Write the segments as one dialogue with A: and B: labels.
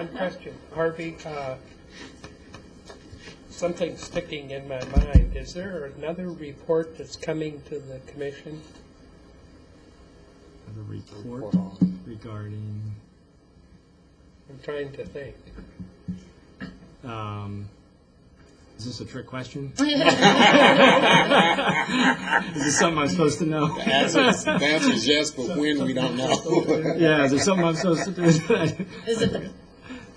A: One question, Harvey, uh, something's sticking in my mind. Is there another report that's coming to the commission?
B: Have a report regarding,
A: I'm trying to think.
B: um, is this a trick question? Is this something I'm supposed to know?
C: answer is- the answer is yes, but when, we don't know.
B: Yeah, is there something I'm supposed to do?
D: Is it the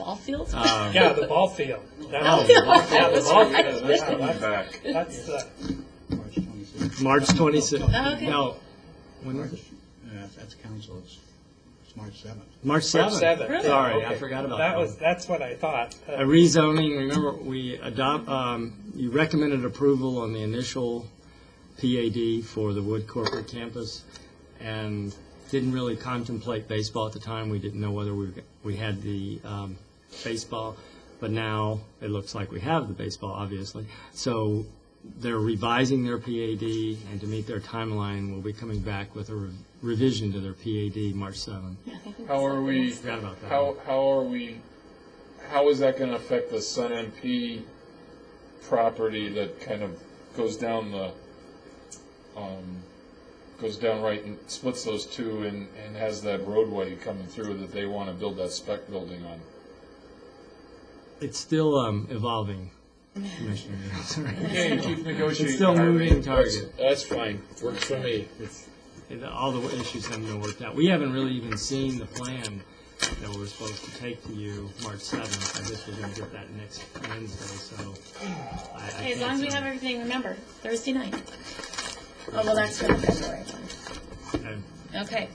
D: ball field?
B: Um,
A: Yeah, the ball field.
B: Oh,
A: That's-
B: the ball
A: Yeah, the
D: That's
A: ball
D: right.
A: field. That's- That's, uh,
B: March 26th.
D: Oh, okay.
B: No, when was it?
E: Uh, That's council, it's, it's March seventh.
A: March
B: March 7th.
A: seventh.
B: Sorry, I
A: Okay.
B: forgot about
A: That
B: that.
A: was, that's what I thought. Uh,
B: A rezoning, remember, we adopt, um, you recommended approval on the initial PAD for the Wood Corporate Campus, and didn't really contemplate baseball at the time. We didn't know whether we, we had the um, baseball, but now it looks like we have the baseball, obviously. So they're revising their PAD, and to meet their timeline, we'll be coming back with a rev- revision to their PAD March 7th.
F: How are we,
B: Forgot about that.
F: how, how are we, how is that gonna affect the Sun MP property that kind of goes down the, um, goes down right and splits those two and, and has that roadway coming through that they wanna build that spec building on?
B: It's still um, evolving, Commissioner. Sorry.
F: Yeah, you keep negotiating.
B: It's still
F: Harvey.
B: moving target.
F: That's fine, works for me.
B: It's, it- all the issues haven't been worked out. We haven't really even seen the plan that we were supposed to take to you March seventh. I guess we're gonna get that next Wednesday, so. I- I
D: Okay, as
B: can't
D: long as we
B: say.
D: have everything, remember, Thursday night. Oh, well, that's for the February one.
B: Um,
D: Okay.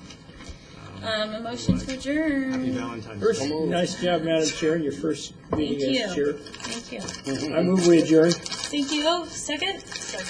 D: Um, a motion to adjourn.
B: Happy Valentine's Day.
G: Nice job, Madam Chair, in your first meeting
D: Thank
G: as
D: you.
G: chair.
D: Thank you.
G: I move we adjourn.
D: Thank you. Second? Second.